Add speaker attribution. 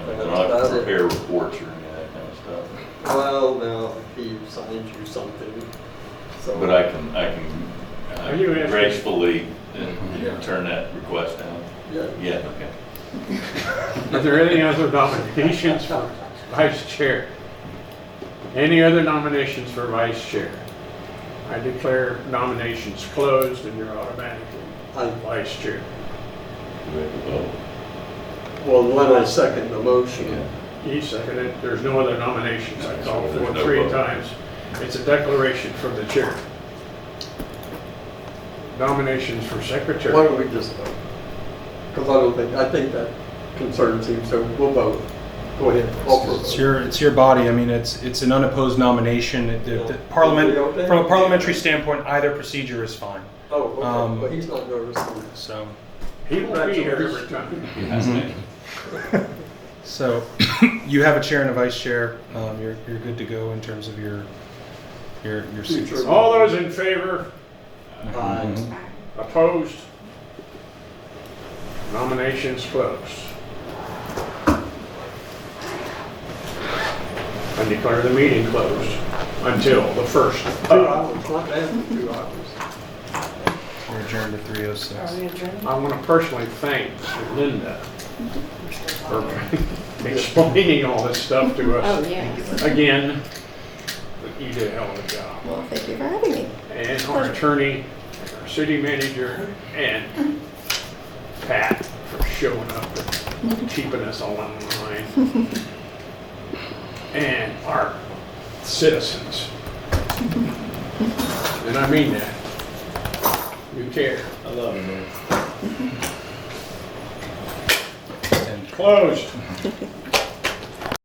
Speaker 1: prepare reports or any of that kind of stuff.
Speaker 2: Well, now, he signed you something, so.
Speaker 1: But I can, I can
Speaker 3: Are you
Speaker 1: uh,
Speaker 3: asking-
Speaker 1: gracefully
Speaker 2: Yeah.
Speaker 1: uh, turn that request down.
Speaker 2: Yeah.
Speaker 1: Yeah, okay.
Speaker 3: Is there any other nominations for vice chair? Any other nominations for vice chair? I declare nominations closed and you're automatically
Speaker 2: I-
Speaker 3: vice chair.
Speaker 1: Do we have to vote?
Speaker 2: Well, when I second the motion,
Speaker 1: Yeah.
Speaker 3: He seconded it. There's no other nominations. I called for
Speaker 1: There's
Speaker 3: it
Speaker 1: no
Speaker 3: three
Speaker 1: vote.
Speaker 3: times. It's a declaration from the chair. Nominations for secretary.
Speaker 2: why don't we just vote? Because I don't think, I think that concerns him, so we'll vote. Go ahead, call for a
Speaker 4: It's
Speaker 2: vote.
Speaker 4: your, it's your body. I mean, it's, it's an unopposed nomination. It- the- the Parliament, from a parliamentary standpoint, either procedure is fine.
Speaker 2: Oh, okay,
Speaker 4: um,
Speaker 2: well, he's not nervous.
Speaker 4: So,
Speaker 3: He will be here every time.
Speaker 4: so you have a chair and a vice chair. Um, you're, you're good to go in terms of your, your, your seats.
Speaker 2: Future.
Speaker 3: All those in favor,
Speaker 2: Aye.
Speaker 3: opposed? Nominations closed. I declare the meeting closed until the first.
Speaker 2: Two hours, not bad, for two hours.
Speaker 4: We're adjourned at three oh
Speaker 5: Are
Speaker 4: six.
Speaker 5: we adjourned?
Speaker 3: I want to personally thank Linda for explaining all this stuff to
Speaker 5: Oh,
Speaker 3: us.
Speaker 5: yes.
Speaker 3: Again, you did a hell of a job.
Speaker 5: Well, thank you for having me.
Speaker 3: And our attorney, and our city manager, and Pat for showing up and keeping us all online. And our citizens. And I mean that. You care.
Speaker 1: I love it, man.
Speaker 4: And
Speaker 3: Closed.